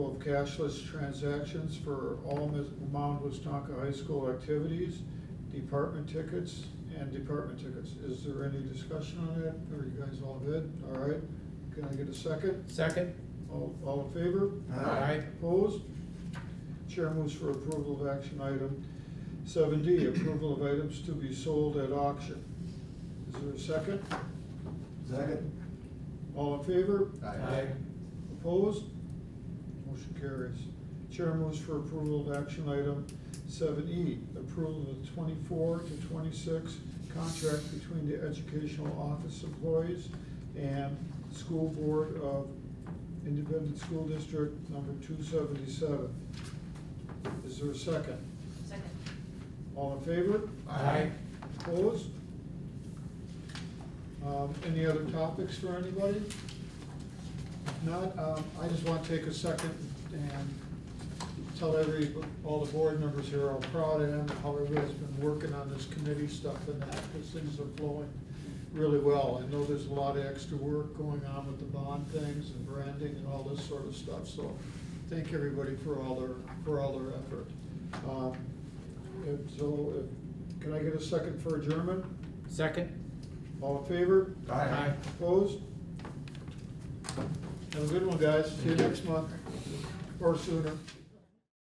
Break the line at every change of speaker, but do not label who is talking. of cashless transactions for all Mis- Mount Wisconka High School activities, department tickets, and department tickets. Is there any discussion on that? Are you guys all good? All right, can I get a second?
Second?
All, all in favor?
Aye.
Opposed? Chair moves for approval of action item seven D, approval of items to be sold at auction. Is there a second?
Second?
All in favor?
Aye.
Opposed? Motion carries. Chair moves for approval of action item seven E, approval of the twenty-four to twenty-six contract between the educational office employees and school board of Independent School District number two seventy-seven. Is there a second?
Second.
All in favor?
Aye.
Opposed? Um, Any other topics for anybody? If Not, um, I just want to take a second and tell every, all the board members here how proud I am of how everybody's been working on this committee stuff and that, because things are flowing really well. I know there's a lot of extra work going on with the bond things and branding and all this sort of stuff, so thank everybody for all their, for all their effort. Um, and So, uh, can I get a second for adjournment?
Second?
All in favor?
Aye.
Opposed? Have a good one, guys. See you next month or sooner.